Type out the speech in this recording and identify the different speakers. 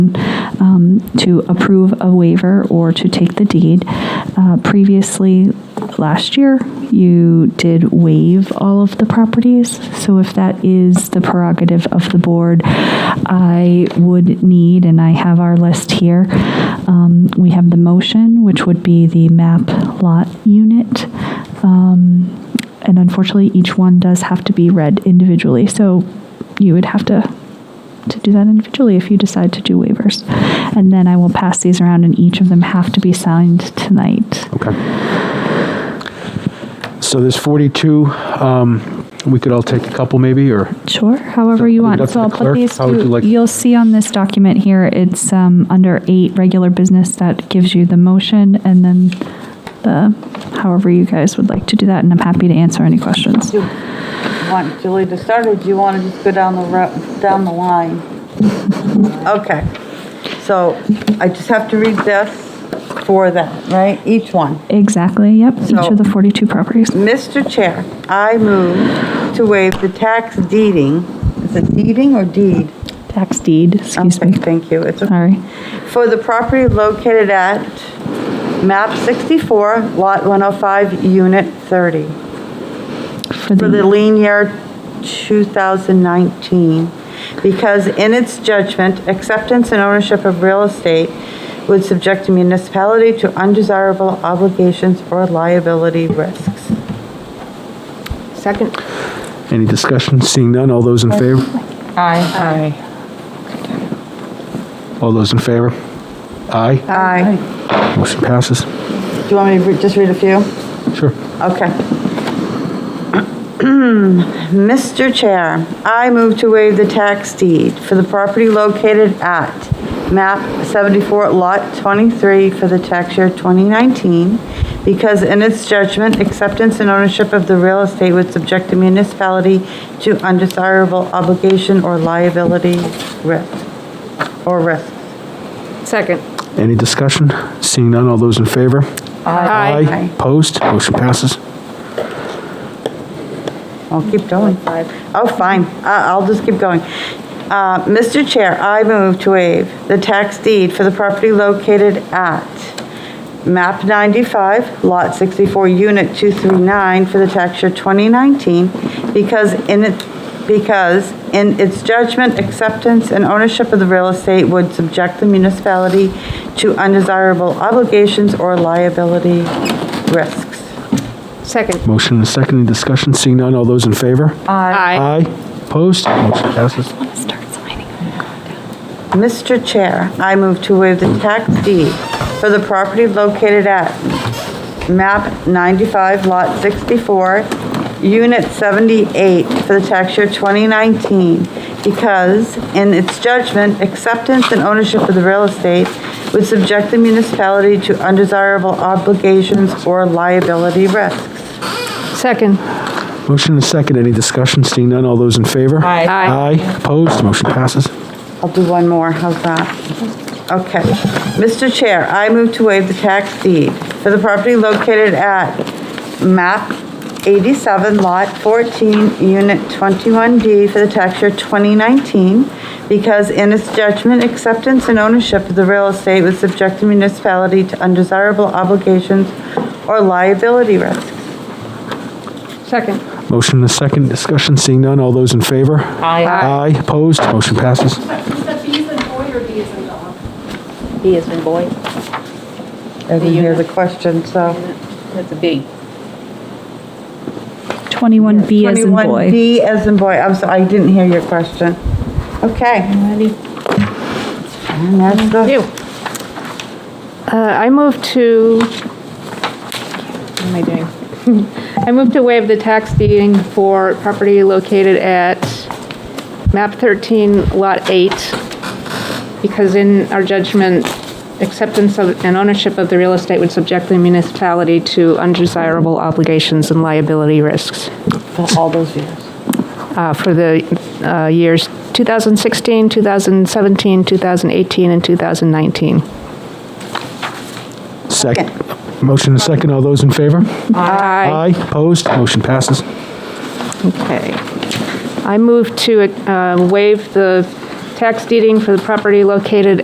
Speaker 1: um, to approve a waiver or to take the deed. Uh, Previously, last year, you did waive all of the properties, so if that is the prerogative of the board, I would need, and I have our list here, um, we have the motion, which would be the map lot unit, um, and unfortunately, each one does have to be read individually, so you would have to to do that individually if you decide to do waivers. And then I will pass these around, and each of them have to be signed tonight.
Speaker 2: Okay. So there's 42. um, We could all take a couple, maybe, or,
Speaker 1: Sure, however you
Speaker 2: So,
Speaker 1: want.
Speaker 2: that's
Speaker 1: So I'll
Speaker 2: the
Speaker 1: put
Speaker 2: clerk.
Speaker 1: these,
Speaker 2: How would you
Speaker 1: to-
Speaker 2: like-
Speaker 1: you'll see on this document here, it's um, under eight, regular business, that gives you the motion, and then the, however you guys would like to do that, and I'm happy to answer any questions.
Speaker 3: Do you want Julie to start, or do you want to just go down the ro, down the line? Okay, so I just have to read this for them, right? Each one.
Speaker 1: Exactly, yep, each
Speaker 3: So-
Speaker 1: of the 42 properties.
Speaker 3: Mr. Chair, I move to waive the tax deeding, is it deeding or deed?
Speaker 1: Tax deed, excuse
Speaker 3: Okay,
Speaker 1: me,
Speaker 3: Thank you, it's okay.
Speaker 1: sorry.
Speaker 3: for the property located at map 64, lot 105, unit 30,
Speaker 1: For
Speaker 3: for the
Speaker 1: the,
Speaker 3: lien year 2019, because in its judgment, acceptance and ownership of real estate would subject the municipality to undesirable obligations or liability risks.
Speaker 4: Second.
Speaker 2: any discussion? Seeing none, all those in favor?
Speaker 3: Aye.
Speaker 4: Aye.
Speaker 2: All those in favor? Aye.
Speaker 3: Aye.
Speaker 2: Motion passes.
Speaker 3: Do you want me to re- just read a few?
Speaker 2: Sure.
Speaker 3: Okay. Mr. Chair, I move to waive the tax deed for the property located at map 74, lot 23 for the tax year 2019, because in its judgment, acceptance and ownership of the real estate would subject the municipality to undesirable obligation or liability risk, or risk.
Speaker 4: Second.
Speaker 2: Any discussion? Seeing none, all those in favor?
Speaker 4: Aye.
Speaker 3: Aye.
Speaker 2: Opposed? Motion passes.
Speaker 3: I'll keep going. Oh, fine. I- I'll just keep going. Uh, Mr. Chair, I move to waive the tax deed for the property located at MAP 95, Lot 64, Unit 239 for the tax year 2019 because in it, because in its judgment, acceptance and ownership of the real estate would subject the municipality to undesirable obligations or liability risks.
Speaker 4: Second.
Speaker 2: Motion and a second, any discussion? Seeing none, all those in favor?
Speaker 4: Aye.
Speaker 2: Opposed? Motion passes.
Speaker 1: start signing.
Speaker 3: Mr. Chair, I move to waive the tax deed for the property located at MAP 95, Lot 64, Unit 78, for the tax year 2019, because in its judgment, acceptance and ownership of the real estate would subject the municipality to undesirable obligations or liability risks.
Speaker 4: Second.
Speaker 2: Motion and a second, any discussion? Seeing none, all those in favor?
Speaker 4: Aye. Aye.
Speaker 2: Aye. Opposed? Motion passes.
Speaker 3: I'll do one more, how's that? Okay. Mr. Chair, I move to waive the tax deed for the property located at MAP 87, Lot 14, Unit 21D for the tax year 2019, because in its judgment, acceptance and ownership of the real estate would subject the municipality to undesirable obligations or liability risks.
Speaker 4: Second.
Speaker 2: Motion and a second, discussion, seeing none, all those in favor? Aye. Aye, opposed, motion passes.
Speaker 5: Is that B as in boy or B as in dog?
Speaker 6: B is in boy.
Speaker 3: I didn't hear the question, so.
Speaker 6: That's a B.
Speaker 1: 21B as in boy.
Speaker 3: 21D as in boy, I'm sorry, I didn't hear your question. Okay. And that's the-
Speaker 4: You. Uh, I move to, what am I doing? I move to waive the tax deeding for property located at map 13, lot 8, because in our judgment, acceptance of and ownership of the real estate would subject the municipality to undesirable obligations and liability risks
Speaker 3: For all those years.
Speaker 4: uh, for the uh, years 2016, 2017, 2018, and 2019.
Speaker 2: Second, motion and a second, all those in favor?
Speaker 4: Aye.
Speaker 2: Aye, opposed, motion passes.
Speaker 4: Okay. I move to uh, waive the tax deeding for the property located